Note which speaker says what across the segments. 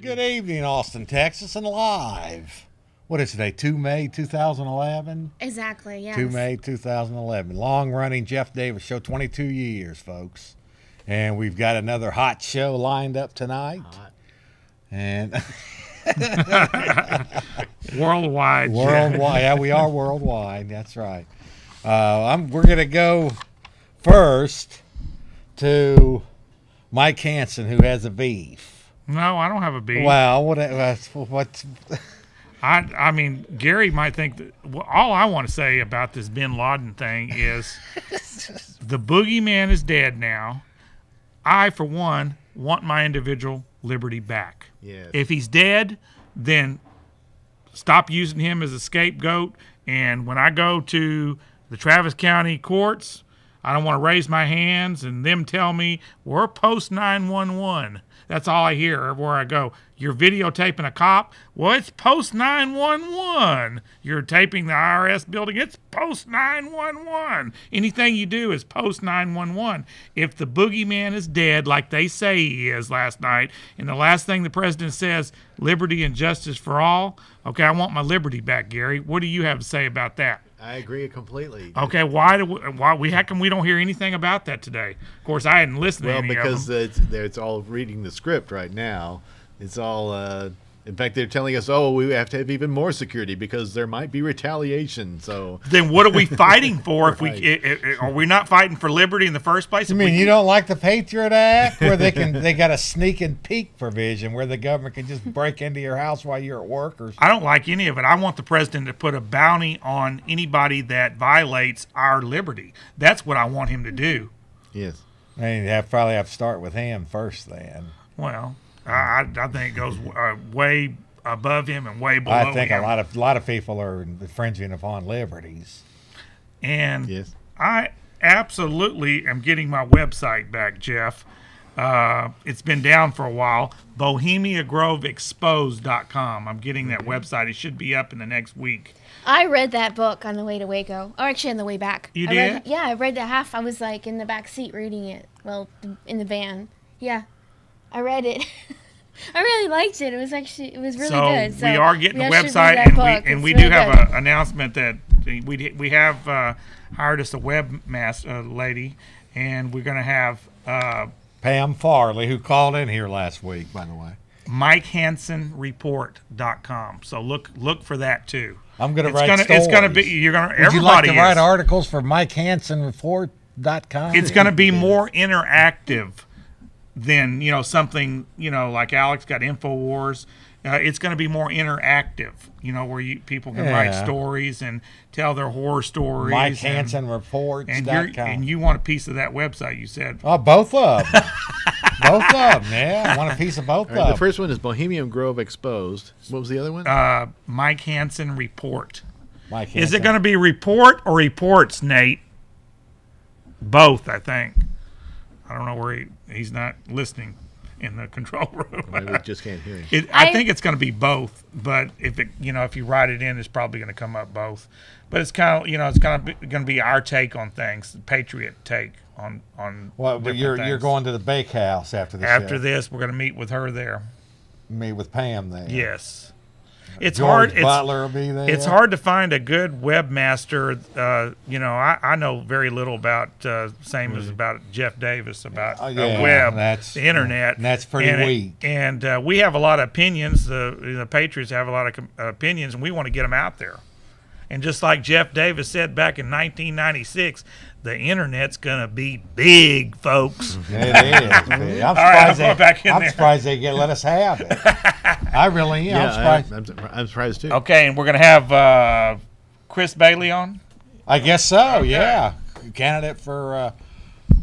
Speaker 1: Good evening, Austin, Texas, and live. What is today? 2 May 2011?
Speaker 2: Exactly. Yes.
Speaker 1: 2 May 2011. Long running Jeff Davis show, 22 years, folks. And we've got another hot show lined up tonight. And
Speaker 3: Worldwide. Jeff.
Speaker 1: worldwide. yeah, we are worldwide. That's right. Uh, I'm, we're going to go first to Mike Hansen, who has a beef.
Speaker 3: No, I don't have a beef.
Speaker 1: Wow, what, uh, what,
Speaker 3: I, I mean, Gary might think that well, all I want to say about this Bin Laden thing is the boogeyman is dead now. I, for one, want my individual liberty back.
Speaker 4: Yes.
Speaker 3: If he's dead, then stop using him as a scapegoat. And when I go to the Travis County courts, I don't want to raise my hands and them tell me we're post 911. That's all I hear everywhere I go. You're videotaping a cop. Well, it's post 911. You're taping the IRS building. It's post 911. Anything you do is post 911. If the boogeyman is dead, like they say he is last night, and the last thing the president says, liberty and justice for all, okay, I want my liberty back, Gary. What do you have to say about that?
Speaker 4: I agree completely.
Speaker 3: Okay, why do we, why we how come we don't hear anything about that today? Of course, I hadn't listened to
Speaker 4: well,
Speaker 3: any
Speaker 4: because
Speaker 3: of them.
Speaker 4: it's, they're- it's all reading the script right now. It's all. Uh, in fact, they're telling us, "Oh, we have to have even more security because there might be retaliation." So
Speaker 3: then what are we fighting for if we
Speaker 4: uh, Right.
Speaker 3: i i are we not fighting for liberty in the first place?
Speaker 1: I
Speaker 3: If
Speaker 1: mean,
Speaker 3: we-
Speaker 1: you don't like the Patriot Act, where they can they got a sneak and peek provision where the government can just break into your house while you're at work or
Speaker 3: I don't like any of it. I want the president to put a bounty on anybody that violates our liberty. That's what I want him to do.
Speaker 4: yes,
Speaker 1: and you have probably have to start with him first. Then
Speaker 3: Well, I, I I think it goes uh, way above him and way below
Speaker 1: I think
Speaker 3: him.
Speaker 1: a lot of lot of people are infringing upon liberties.
Speaker 3: And
Speaker 4: yes.
Speaker 3: I absolutely am getting my website back, Jeff. Uh, it's been down for a while. BohemiaGroveExposed.com. I'm getting
Speaker 1: Mm-hmm.
Speaker 3: that website. It should be up in the next week.
Speaker 2: I read that book on the way to Waco, or actually on the way back.
Speaker 3: You
Speaker 2: I read-
Speaker 3: did?
Speaker 2: yeah, I read the half. I was like in the back seat reading it. Well, th- in the van. Yeah, I read it. I really liked it. It was actually it was really
Speaker 3: so
Speaker 2: good. So
Speaker 3: we are getting
Speaker 2: we
Speaker 3: a
Speaker 2: all should
Speaker 3: website,
Speaker 2: read that
Speaker 3: and
Speaker 2: book.
Speaker 3: we and
Speaker 2: It's
Speaker 3: we
Speaker 2: really
Speaker 3: do have
Speaker 2: good.
Speaker 3: an announcement that we d- we have uh, hired us a webmaster uh, lady, and we're gonna have. Uh,
Speaker 1: Pam Farley, who called in here last week, by the way,
Speaker 3: MikeHansenReport.com. So look look for that too.
Speaker 1: I'm gonna
Speaker 3: it's
Speaker 1: write
Speaker 3: gonna it's gonna be
Speaker 1: stories.
Speaker 3: you're gonna
Speaker 1: would you like
Speaker 3: everybody
Speaker 1: to
Speaker 3: is.
Speaker 1: write articles for Mike Hansen Report? Dot com.
Speaker 3: it's going to be more interactive than you know something you know like Alex got Infowars. Uh, it's going to be more interactive, you know, where you, people can write
Speaker 1: Yeah.
Speaker 3: stories and tell their horror stories.
Speaker 1: Mike
Speaker 3: and-
Speaker 1: Hansen Reports.
Speaker 3: and,
Speaker 1: dot
Speaker 3: you're,
Speaker 1: com.
Speaker 3: and you want a piece of that website? You said
Speaker 1: oh, both of them. both of them. Yeah, I want a piece of both
Speaker 4: All right, the
Speaker 1: of them.
Speaker 4: first one is Bohemian Grove Exposed. What was the other one?
Speaker 3: uh, Mike Hansen report.
Speaker 1: Mike
Speaker 3: Is it
Speaker 1: Hansen.
Speaker 3: going to be report or reports, Nate? Both, I think. I don't know where he, he's not listening in the control room.
Speaker 4: Maybe we just can't hear him.
Speaker 3: It, I,
Speaker 2: I-
Speaker 3: think it's going to be both, but if it, you know, if you write it in, it's probably going to come up both. But it's kind of, you know, it's kind of going to be our take on things, the Patriot take on on.
Speaker 1: Well, but
Speaker 3: different
Speaker 1: you're you're
Speaker 3: things.
Speaker 1: going to the bakehouse after the
Speaker 3: after
Speaker 1: show.
Speaker 3: this. We're going to meet with her there.
Speaker 1: me with Pam there.
Speaker 3: Yes, it's hard.
Speaker 1: George
Speaker 3: it's-
Speaker 1: Butler will be there.
Speaker 3: It's hard to find a good webmaster. Uh, you know, I, I know very little about uh, same as about Jeff Davis about
Speaker 1: Oh,
Speaker 3: uh,
Speaker 1: yeah,
Speaker 3: web,
Speaker 1: that's-
Speaker 3: the internet.
Speaker 1: and that's pretty
Speaker 3: and it-
Speaker 1: weak.
Speaker 3: and uh, we have a lot of opinions. The the Patriots have a lot of com- uh, opinions, and we want to get them out there. And just like Jeff Davis said back in 1996, the internet's gonna be big, folks.
Speaker 1: It is. man. I'm surprised,
Speaker 3: right, I'm
Speaker 1: they,
Speaker 3: going back in
Speaker 1: I'm
Speaker 3: there.
Speaker 1: surprised they get let us have it. I really am. I'm
Speaker 4: yeah,
Speaker 1: surprised.
Speaker 4: I, am surprised too.
Speaker 3: okay, and we're gonna have uh, Chris Bailey on.
Speaker 1: I, guess so. Yeah, candidate for. Uh,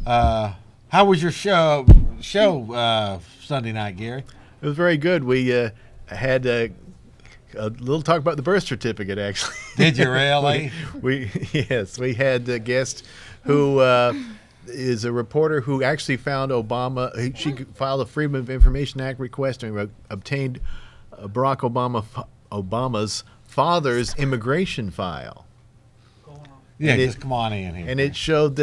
Speaker 1: uh, how was your show? Show uh, Sunday night, Gary.
Speaker 4: It was very good. We uh, had uh, a little talk about the birth certificate, actually.
Speaker 1: Did you really?
Speaker 4: we yes, we had a guest who uh, is a reporter who actually found Obama. he- She filed a Freedom of Information Act request and re- obtained uh, Barack Obama fa- Obama's father's immigration file,
Speaker 1: yeah,
Speaker 4: And it-
Speaker 1: just come on in here.
Speaker 4: and it showed